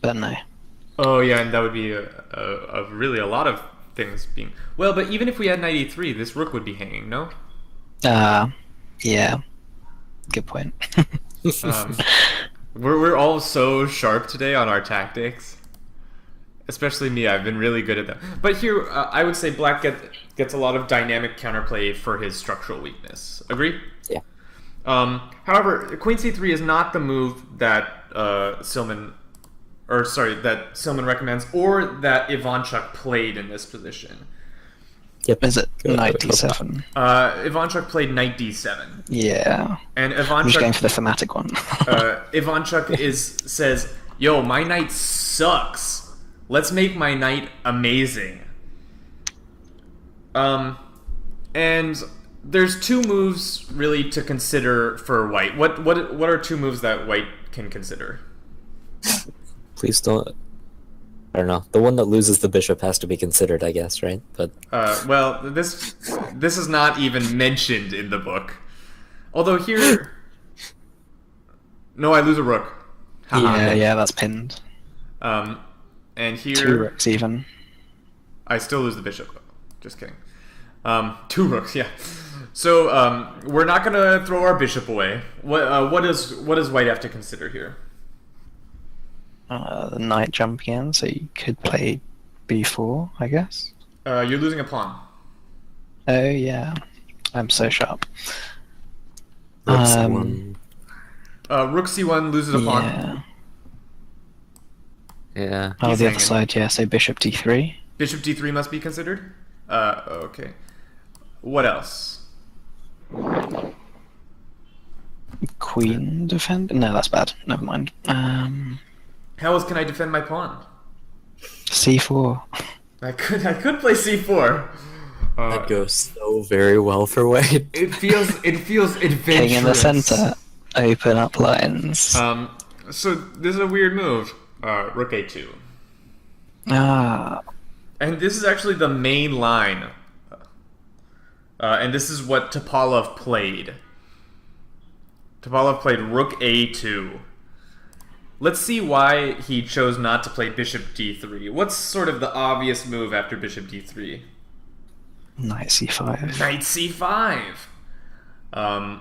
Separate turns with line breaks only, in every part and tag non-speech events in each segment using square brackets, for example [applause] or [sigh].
but no.
Oh yeah, and that would be a, a, a really a lot of things being. Well, but even if we had ninety three, this rook would be hanging. No.
Uh, yeah. Good point. [laughs]
Um, we're we're all so sharp today on our tactics. Especially me, I've been really good at them. But here, uh, I would say Black get, gets a lot of dynamic counterplay for his structural weakness. Agree?
Yeah.
Um, however, Queen C3 is not the move that uh, Silman, or sorry, that Silman recommends, or that Ivanchuk played in this position.
Yep.
Is it
Good.
ninety-seven?
Uh, Ivanchuk played Knight D7,
Yeah.
and
I'm just going
Ivanchuk
for the thematic one. [laughs]
uh, Ivanchuk is says, "Yo, my night sucks. Let's make my night amazing." Um, and there's two moves really to consider for White. What what what are two moves that White can consider?
Please don't. I don't know. The one that loses the bishop has to be considered, I guess, right? But
Uh, well, this this is not even mentioned in the book. Although here, no, I lose a rook.
Uh-huh.
Haha.
yeah, yeah, that's pinned.
Um, and here
Two rooks even.
I still lose the bishop. Just kidding. Um, two rooks, yeah. So um, we're not gonna throw our bishop away. What uh, what is what does white have to consider here?
Uh, the knight jumping in, so you could play b4, I guess.
Uh, you're losing a pawn.
Oh yeah, I'm so sharp.
that's the
Um,
one.
Uh, rook c1 loses a pawn.
Yeah.
Yeah.
Oh,
He's
the
hanging.
other side, yeah. So bishop d3.
Bishop d3 must be considered. Uh, okay. What else?
Queen defend? No, that's bad. Never mind. Um,
How else can I defend my pawn?
c4.
I could I could play c4. Uh,
That goes so very well for Wade.
[laughs] it feels it feels adventurous.
King in the center. Open up lines.
Um, so this is a weird move. Uh, rook a2.
ah,
And this is actually the main line. Uh, and this is what Topalov played. Topalov played rook a2. Let's see why he chose not to play bishop d3. What's sort of the obvious move after bishop d3?
knight c5.
Knight c5. Um,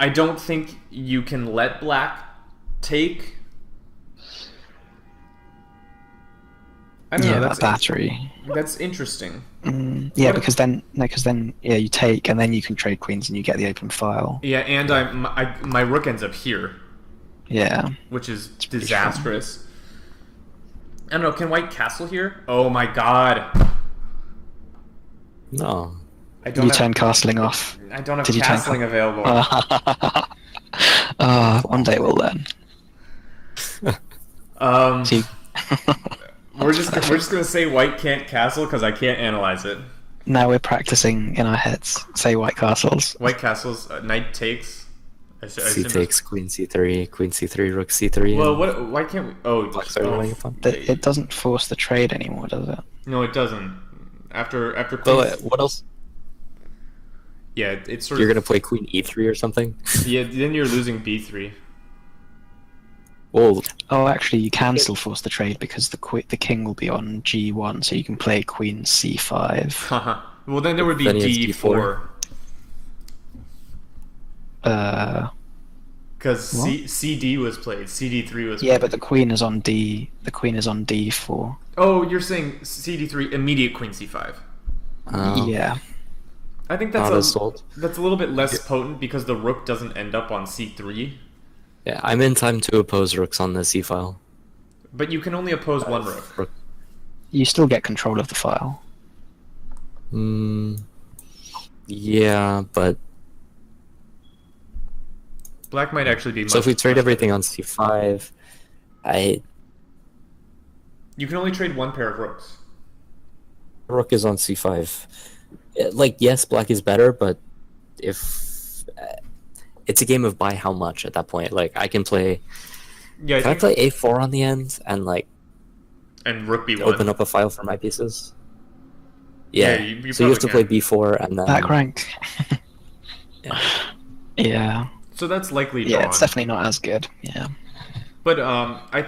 I don't think you can let black take. I don't
Yeah,
know.
that
That's,
Uh, battery.
that's interesting.
Mm, yeah, because then, no, because then, yeah, you take and then you can trade queens and you get the open file.
Yeah, and I my, I, my rook ends up here,
Yeah.
which is disastrous. I don't know. Can white castle here? Oh my god!
No.
I don't.
You
have,
turn castling off. [laughs]
I don't have
did you turn
castling available.
Uh,
Ah, one day we'll learn. [laughs]
um,
See-
we're just we're just gonna say white can't castle because I can't analyze it.
now we're practicing in our heads. Say white castles.
White castles. Uh, knight takes. I, s- I
C
assume-
takes queen c3, queen c3, rook c3.
Well,
and
what? Why can't we? Oh,
Black's
oh,
overlaying upon.
That it doesn't force the trade anymore, does it?
no, it doesn't. After after queen,
Well, uh, what else?
yeah, it- it's sort
You're
of
gonna play queen e3 or
[laughs]
something?
yeah. Then you're losing b
[laughs]
three.
Oh,
Oh, actually, you can still force the trade because the qu- the king will be on g1, so you can play queen c5.
Haha. well, then there would be
Then he has
d four.
D4.
Uh,
Because C- CD was played, CD3 was played.
yeah, but the queen is on d. The queen is on d4.
Oh, you're saying CD3 immediate Queen C5.
um,
Yeah.
I think that's
not
a,
assault.
that's a little bit less potent because the rook doesn't end up on C3,
Yeah, I'm in time to oppose rooks on the c file.
but you can only oppose one rook.
Rook.
You still get control of the file.
Mm, yeah, but
Black might actually be.
so
much-
if we trade
much-
everything on c5, I
you can only trade one pair of rooks.
rook is on c5. Uh, Like yes, black is better, but if uh, it's a game of by how much at that point, like I can play
Yeah, I
can I
think,
play a4 on the end and like
and rook B1.
open up a file for my pieces? Yeah,
Yeah, you- you
so you have to
probably
play b4 and then
Back rank.
Yeah.
yeah.
So that's likely drawn.
Yeah, it's definitely not as good. Yeah.
But um, I